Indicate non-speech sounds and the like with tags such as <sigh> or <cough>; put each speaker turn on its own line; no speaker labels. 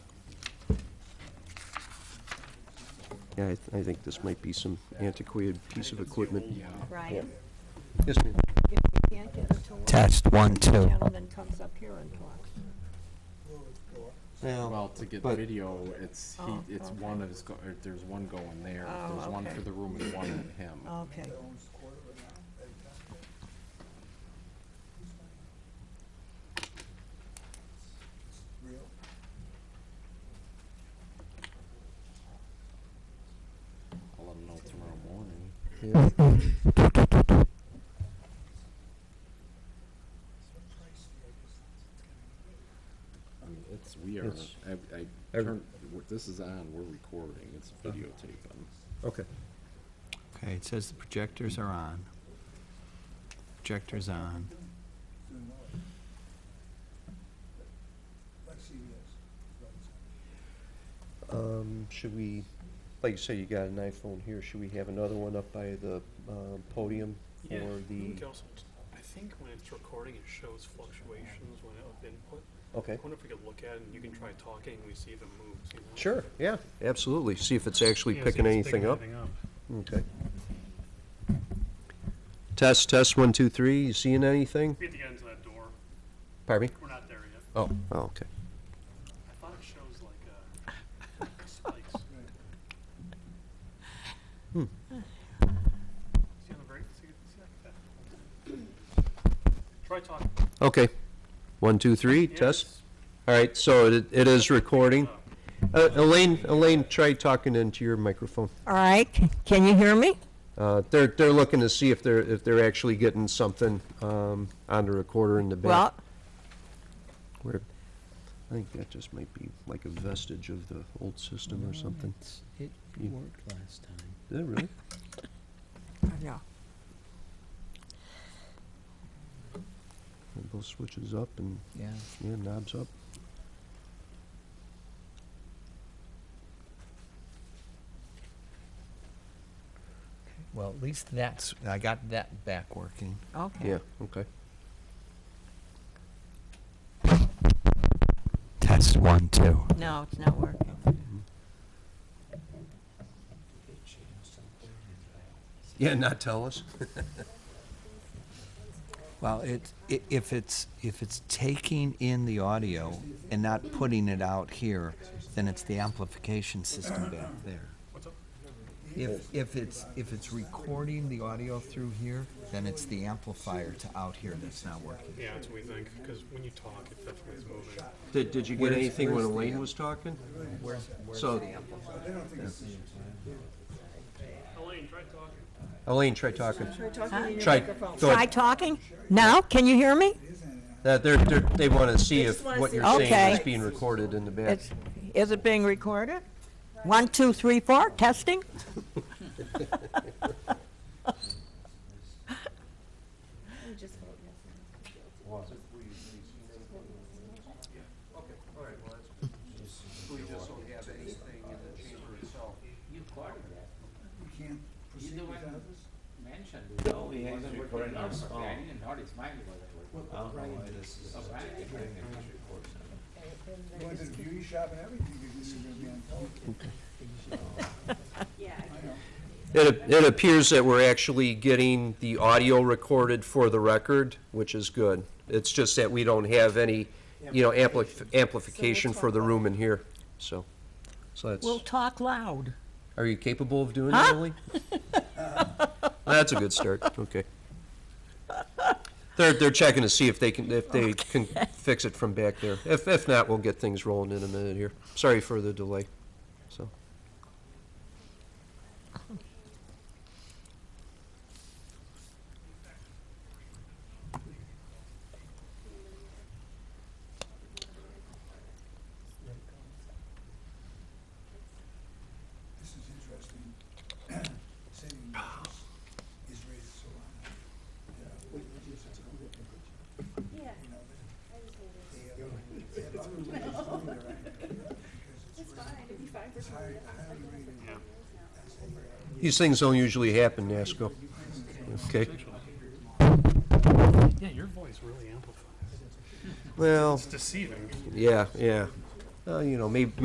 Yeah, I, th- I think this might be some antiquated piece of equipment.
Ryan,
Yes, ma'am.
if we can't get it to work.
Test, one,
the
two.
Gentleman comes up here and talks.
Well, to get
but-
video, it's
Oh,
he, it's
okay.
one of his. Go- or there's one going there.
Oh,
there's one
okay.
for the room and one at him.
Okay,
I'll let him know tomorrow morning.
Yeah.
I mean, it's we are.
It's-
I, I
Every- Uh-huh.
turned, we're- this is on. We're recording. It's videotaping.
Okay.
Okay, it says the projectors are on. Projectors on.
Um, should we, like you say, you got an iPhone here, should we have another one up by the, um, podium?
Yeah,
Or
I
the,
think also t- I think when it's recording, it shows fluctuations when it of input. I
okay.
wonder if we could look at it and you can try talking and we see if it moves, you know?
Sure, yeah, absolutely. See if it's actually
Yeah, see if
picking
it's
anything up.
anything up.
Okay. Test, test, one, two, three, you seeing anything?
Be at the end of that door.
Pardon me?
We're not there yet.
Oh, oh, okay.
I thought it shows like, uh, <laughs> spikes.
Hmm.
See on the break, see, see like that? Try talking.
Okay. One, two, three,
Yeah,
test.
it's-
All right, so it, it is recording.
uh,
Uh, Elaine, Elaine, try talking into your microphone.
all right, c- can you hear me?
Uh, they're, they're looking to see if they're, if they're actually getting something, um, on the recorder in the back.
Well,
Where, I think that just might be like a vestige of the old system or something.
It
You-
worked last time.
Is that really?
yeah,
Both switches up and,
Yeah.
yeah, knobs up.
Well, at least that's, I got that back working.
okay.
Yeah, okay.
Test, one, two.
No, it's not working.
Yeah, not tell us.
Well, it, i- if it's, if it's taking in the audio and not putting it out here, then it's the amplification system back there.
What's up?
If, if it's, if it's recording the audio through here, then it's the amplifier to out here that's not working.
Yeah, that's what we think, because when you talk, it definitely is moving.
Did, did you get
Where's-
anything when
where's the
Elaine
amp?
was talking?
Where's, where's
So-
the amplifier?
Elaine, try talking.
Elaine, try talking.
Huh?
Try, go
Try
ahead.
talking? Now, can you hear me?
Uh, they're, they're, they want to see if what you're saying
Okay.
is being recorded in the back.
It's, is it being recorded? One, two, three, four, testing?
No, he hasn't recorded on his phone. I didn't notice mine was recorded. I don't know why this is.
Going to the beauty shop and everything, because this is gonna be on television.
It, it appears that we're actually getting the audio recorded for the record, which is good. It's just that we don't have any, you know, ampli- amplification for the room in here, so. So
We'll
that's,
talk loud.
are you capable of doing that, Elaine? That's a good start, okay. They're, they're checking to see if they can, if they can fix it from back there. If, if not, we'll get things rolling in a minute here. Sorry for the delay, so.
This is interesting. <clears throat> Saving grace is raised so high. You know, we- we just- it's a good looking picture. You know, they- they, uh, they have other ways of doing their acting, because it's rated- it's high- highly rated as a, uh,
These things don't usually happen, Nasco. Okay,
Yeah, your voice really amplifies.
well,
It's deceiving.
yeah, yeah. Uh, you know, maybe,